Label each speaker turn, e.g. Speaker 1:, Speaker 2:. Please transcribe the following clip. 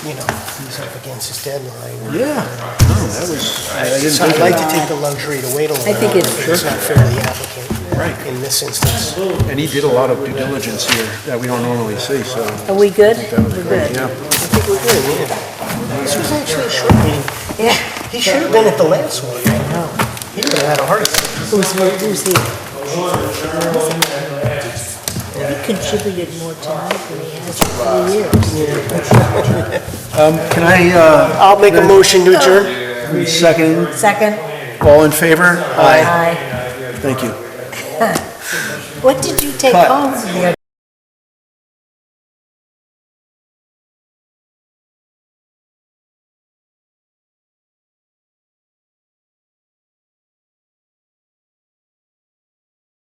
Speaker 1: you know, he's up against his deadline.
Speaker 2: Yeah, no, that was, I I didn't
Speaker 1: So I'd
Speaker 2: think
Speaker 1: like
Speaker 2: of
Speaker 1: to take the luxury to wait a little.
Speaker 3: I think
Speaker 1: bit. It's
Speaker 3: it's-
Speaker 1: not fair to the applicant.
Speaker 2: Right.
Speaker 1: In this instance.
Speaker 2: that. And he did a lot of due diligence here that we don't normally see, so
Speaker 3: Are we good?
Speaker 2: that was
Speaker 3: We're
Speaker 2: great, yeah.
Speaker 3: good.
Speaker 1: I think we're good, yeah. This was actually a short meeting. Yeah. He should have been at the last one. I know. He would have had a heart attack.
Speaker 3: Who's, who's here? He contributed more time than he has for three years.
Speaker 2: Um, Can I, uh,
Speaker 1: I'll make a motion to adjourn.
Speaker 2: second,
Speaker 3: Second?
Speaker 2: all in favor?
Speaker 3: Aye.
Speaker 2: Thank you.
Speaker 3: What did you take
Speaker 2: Cut.
Speaker 3: home?